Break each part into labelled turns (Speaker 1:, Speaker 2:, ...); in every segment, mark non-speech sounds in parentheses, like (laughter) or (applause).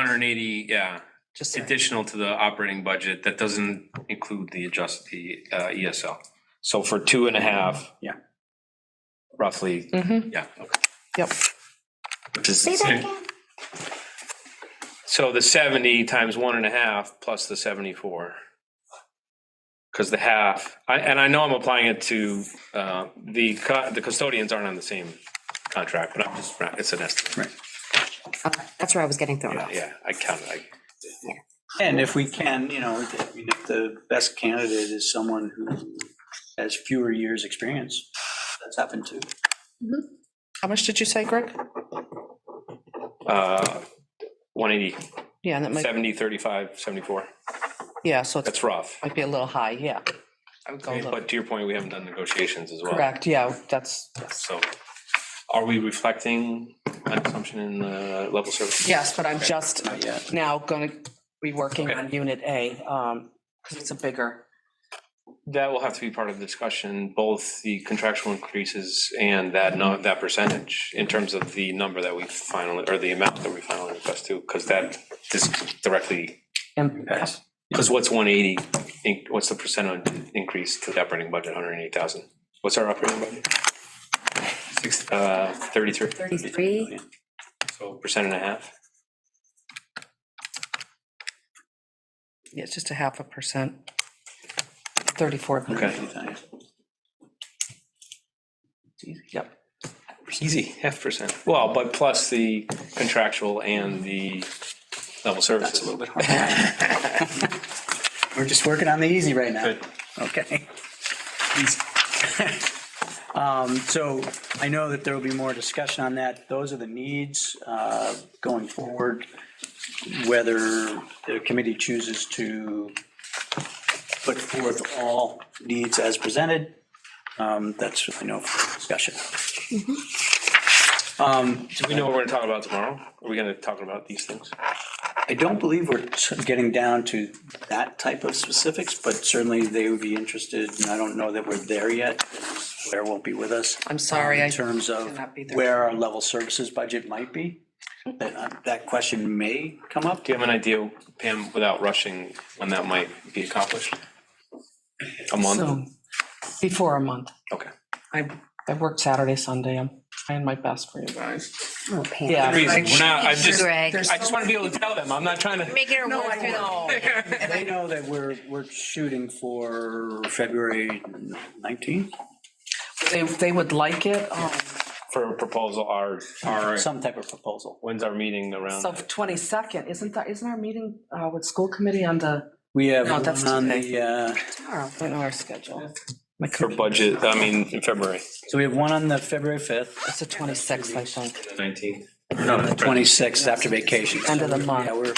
Speaker 1: hundred and eighty, yeah,
Speaker 2: Just so-
Speaker 1: additional to the operating budget. That doesn't include the adjust, the uh, ESL.
Speaker 3: E So for two and a half.
Speaker 4: Yeah.
Speaker 3: Roughly.
Speaker 2: Mhm.
Speaker 1: Yeah, okay.
Speaker 2: Yep.
Speaker 3: which is the same. So the seventy times one and a half plus the seventy-four. Cause the half, I, and I know I'm applying it to, uh, the cu- the custodians aren't on the same contract, but I'm just, it's an estimate.
Speaker 2: Okay, That's where I was getting thrown off.
Speaker 3: Yeah, I counted, I,
Speaker 4: And if we can, you know, I mean, if the best candidate is someone who has fewer years' experience, that's happened too.
Speaker 2: How much did you say, Greg?
Speaker 3: uh, one eighty,
Speaker 2: Yeah, and that might,
Speaker 3: seventy, thirty-five, seventy-four.
Speaker 2: yeah, so it
Speaker 3: That's rough.
Speaker 2: might be a little high, yeah. I would go a little,
Speaker 3: But to your point, we haven't done negotiations as well.
Speaker 2: correct, yeah, that's,
Speaker 3: So are we reflecting an assumption in the level service?
Speaker 2: yes, but I'm just
Speaker 4: Not yet.
Speaker 2: now gonna be working
Speaker 3: Okay.
Speaker 2: on unit A, um, because it's a bigger,
Speaker 3: That will have to be part of the discussion, both the contractual increases and that, no, that percentage in terms of the number that we finally, or the amount that we finally request to, because that this directly,
Speaker 2: and
Speaker 4: Yes.
Speaker 3: because what's one eighty, what's the percent on increase to the operating budget, hundred and eight thousand? What's our operating budget? Six, uh, thirty-three,
Speaker 2: thirty-three,
Speaker 3: so percent and a half?
Speaker 2: yeah, it's just a half a percent. Thirty-four.
Speaker 3: Okay,
Speaker 2: Yep,
Speaker 3: easy, half percent. Well, but plus the contractual and the level
Speaker 4: That's a
Speaker 3: services.
Speaker 4: little bit hard. (laughs) We're just working on the easy right now.
Speaker 3: Good.
Speaker 4: Okay. (laughs) Um, So I know that there will be more discussion on that. Those are the needs uh, going forward, whether the committee chooses to put forth all needs as presented. um, That's, I know, for discussion. Um,
Speaker 3: Do we know what we're gonna talk about tomorrow? Are we gonna talk about these things?
Speaker 4: I don't believe we're getting down to that type of specifics, but certainly they would be interested, and I don't know that we're there yet. Blair won't be with us.
Speaker 2: I'm sorry, I
Speaker 4: In terms of
Speaker 2: cannot be there.
Speaker 4: where our level services budget might be, that, uh, that question may come up.
Speaker 3: Do you have an idea, Pam, without rushing, when that might be accomplished? A month?
Speaker 2: so, before a month.
Speaker 3: Okay.
Speaker 2: I, I work Saturday, Sunday, I'm trying my best for you guys. Yeah.
Speaker 3: Reason, we're not, I'm just, I
Speaker 5: Greg,
Speaker 3: just wanna be able to tell them, I'm not trying to.
Speaker 5: making her walk through the whole.
Speaker 4: They know that we're, we're shooting for February 19th,
Speaker 2: They, they would like it, um,
Speaker 3: For a proposal, our, our,
Speaker 4: some type of proposal.
Speaker 3: when's our meeting around?
Speaker 2: so twenty-second, isn't that, isn't our meeting, uh, with school committee on the?
Speaker 4: We have
Speaker 2: No, that's
Speaker 4: one on the,
Speaker 2: today.
Speaker 4: uh,
Speaker 2: Tomorrow. I don't know our schedule. My
Speaker 3: For
Speaker 2: computer-
Speaker 3: budget, I mean, in February.
Speaker 4: so we have one on the February 5th,
Speaker 2: It's the twenty-sixth, I think,
Speaker 3: Nineteenth.
Speaker 4: 26th after vacation.
Speaker 2: end of the
Speaker 4: Yeah,
Speaker 2: month.
Speaker 4: we're,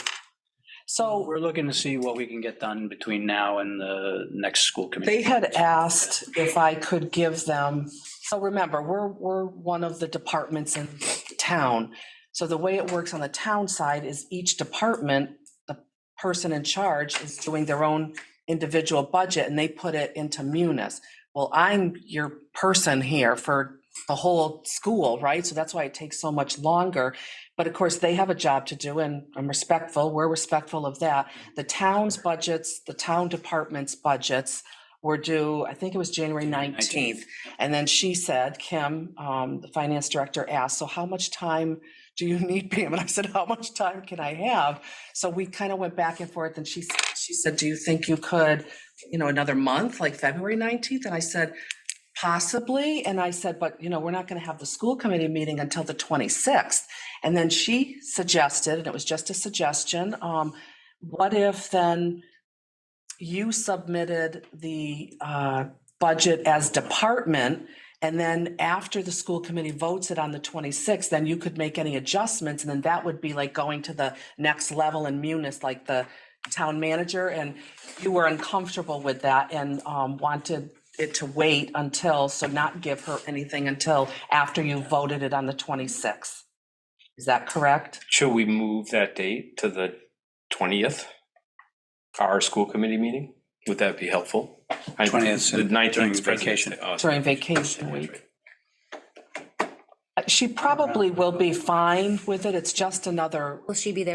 Speaker 2: So
Speaker 4: We're looking to see what we can get done between now and the next school committee.
Speaker 2: they had asked if I could give them, so remember, we're, we're one of the departments in town. So the way it works on the town side is each department, the person in charge is doing their own individual budget and they put it into munis. Well, I'm your person here for the whole school, right? So that's why it takes so much longer. But of course, they have a job to do and I'm respectful, we're respectful of that. The town's budgets, the town department's budgets were due, I think it was January 19th. And then she said, Kim, um, the finance director asked, so how much time do you (laughs) need, Pam? And I said, how much time can I have? So we kind of went back and forth and she, s- she said, do you think you could, you know, another month, like February 19th? And I said, possibly. And I said, but you know, we're not going to have the school committee meeting until the 26th. And then she suggested, and it was just a suggestion, um, what if then you submitted the, uh, budget as department? And then after the school committee votes it on the 26th, then you could make any adjustments. And then that would be like going to the next level in munis, like the town manager. And you were uncomfortable with that and um, wanted it to wait until, so not give her anything until after you voted it on the 26th. Is that correct?
Speaker 3: Should we move that date to the twentieth? Our school committee meeting? Would that be helpful? I-
Speaker 4: 20th,
Speaker 3: The nineteenth
Speaker 4: during vacation.
Speaker 2: during vacation week. Uh, She probably will be fine with it. It's just another
Speaker 5: Will she be there